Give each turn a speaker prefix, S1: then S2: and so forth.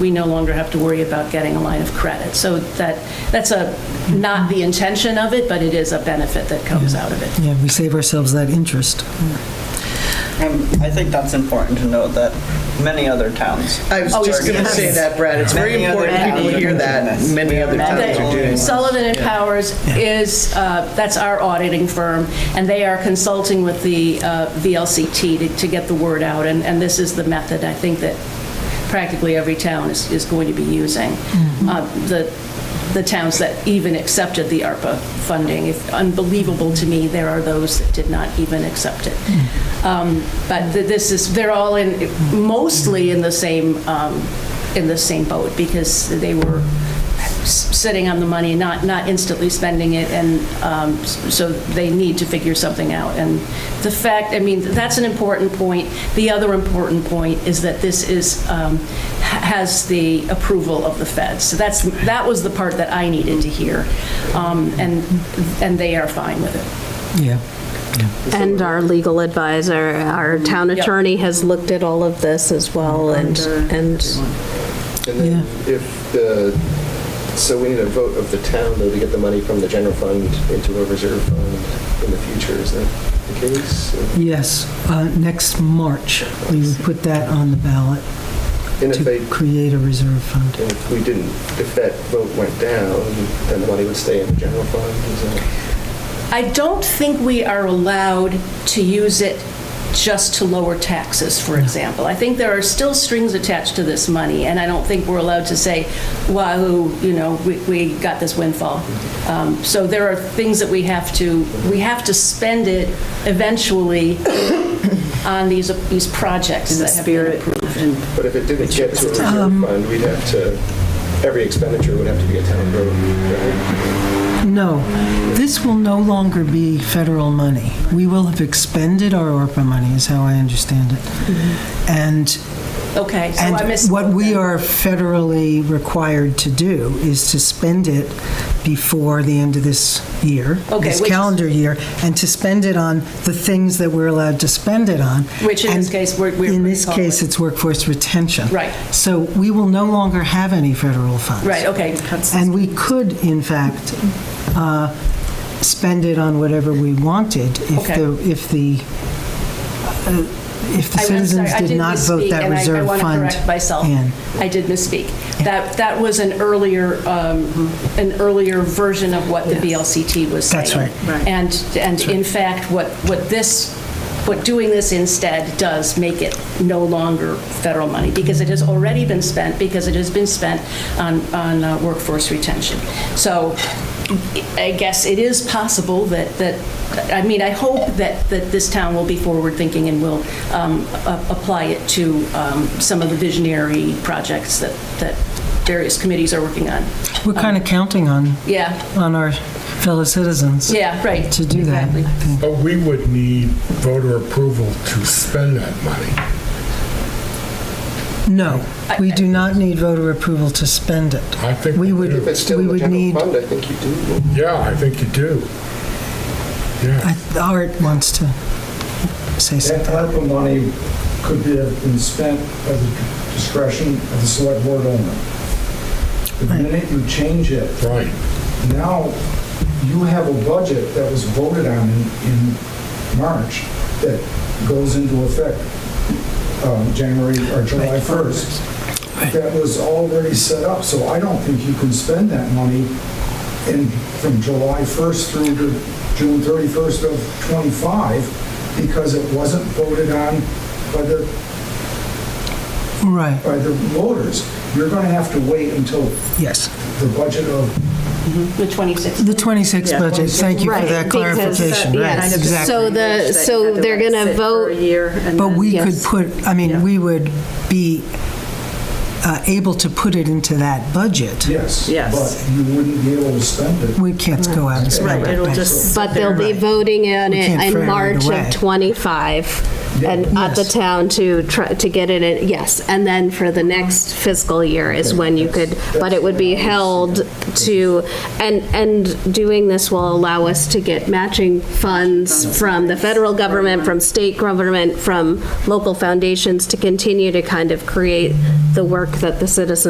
S1: we no longer have to worry about getting a line of credit. So that, that's a, not the intention of it, but it is a benefit that comes out of it.
S2: Yeah, we save ourselves that interest.
S3: And Um, I think that's important to note that many other towns.
S4: I was
S1: Oh,
S4: just
S1: yes.
S4: going to say that, Brad. It's very
S3: Many other
S4: important people
S3: towns
S4: hear
S3: are
S4: that.
S3: doing this.
S4: Many other
S3: Many
S4: towns are
S3: other
S4: doing
S1: That-
S4: this.
S1: Sullivan and Powers is, uh, that's our auditing firm, and they are consulting with the uh, VLCT to- to get the word out, and and this is the method, I think, that practically every town is is going to be using. Uh, The the towns that even accepted the ARPA funding, If- unbelievable to me, there are those that did not even accept it. Um, But th- this is, they're all in, mostly in the same, um, in the same boat, because they were s- sitting on the money, not, not instantly spending it, and um, s- so they need to figure something out. And the fact, I mean, that's an important point. The other important point is that this is, um, ha- has the approval of the feds. So that's, that was the part that I needed to hear, Um, and, and they are fine with it.
S2: Yeah.
S5: And our legal advisor, our town
S1: Yep.
S5: attorney has looked at all of this as well, and, and,
S6: And then if the, so we need a vote of the town, though, to get the money from the general fund into a reserve fund in the future, is that the case?
S2: Yes, uh, next March, we would put that on the ballot
S6: And if they,
S2: to create a reserve fund.
S6: and if we didn't, if that vote went down, then the money would stay in the general fund, is that?
S1: I don't think we are allowed to use it just to lower taxes, for example. I think there are still strings attached to this money, and I don't think we're allowed to say, wahoo, you know, we, we got this windfall. Um, So there are things that we have to, we have to spend it eventually on these, these projects that have been approved.
S6: But if it didn't get to a reserve fund, we'd have to, every expenditure would have to be a town vote, right?
S2: No, this will no longer be federal money. We will have expended our ARPA money, is how I understand it. And
S1: Okay, so I
S2: And
S1: missed.
S2: what we are federally required to do is to spend it before the end of this year,
S1: Okay,
S2: this
S1: which is-
S2: calendar year, and to spend it on the things that we're allowed to spend it on.
S1: Which in this
S2: And
S1: case, we're- we're
S2: In this
S1: pretty
S2: case,
S1: solid.
S2: it's workforce retention.
S1: Right.
S2: So we will no longer have any federal funds.
S1: Right, okay.
S2: And we could, in fact, uh, spend it on whatever we wanted if
S1: Okay.
S2: the, if the, uh, if the
S1: I- I'm sorry,
S2: citizens
S1: I
S2: did not vote
S1: misspeak,
S2: that
S1: and I-
S2: reserve fund in.
S1: I want to correct myself. I did misspeak. That, that was an earlier, um, an earlier version of what the VLCT was saying.
S2: That's right. Right.
S1: And, and in fact, what, what this, what doing this instead does make it no longer federal money, because it has already been spent, because it has been spent on, on uh, workforce retention. So I guess it is possible that, that, I mean, I hope that, that this town will be forward-thinking and will um, a- apply it to um, some of the visionary projects that, that various committees are working on.
S2: We're kind of counting on,
S1: Yeah,
S2: on our fellow citizens.
S1: yeah, right.
S2: To do that.
S1: Exactly.
S7: But we would need voter approval to spend that money.
S2: No, we do not need voter approval to spend it.
S7: I think
S2: We
S7: we
S2: would-
S7: would.
S6: If it's still
S2: We
S6: in the
S2: would
S6: general
S2: need-
S6: fund, I think you do.
S7: Yeah, I think you do. Yeah.
S2: I- Art wants to say
S8: That
S2: something.
S8: ARPA money could be- have been spent at the discretion of the select board owner. The minute you change it,
S7: Right.
S8: now you have a budget that was voted on in, in March that goes into effect um, January or July 1st. That was already set up, so I don't think you can spend that money in, from July 1st through to June 31st of '25 because it wasn't voted on by the
S2: Right,
S8: by the voters. You're going to have to wait until
S2: yes.
S8: the budget of
S1: The 26th.
S2: The 26 budget, thank you for
S5: Right,
S2: that
S5: because, uh,
S2: clarification. Right,
S5: yes,
S2: exactly.
S5: so the, so they're going to vote,
S2: But we could
S5: yes.
S2: put, I mean, we would be uh, able to put it into that budget.
S8: yes.
S4: Yes.
S8: But you wouldn't be able to spend it
S2: We can't go out and spend it.
S4: it'll just-
S5: but they'll be voting on
S2: We
S5: it
S2: can't throw it
S5: in March
S2: away.
S5: of '25, and at the
S2: Yes.
S5: town to try, to get it, in yes, and then for the next fiscal year is when you could, but it would be held to, and, and doing this will allow us to get matching funds from the federal government, from state government, from local foundations to continue to kind of create the work that the citizens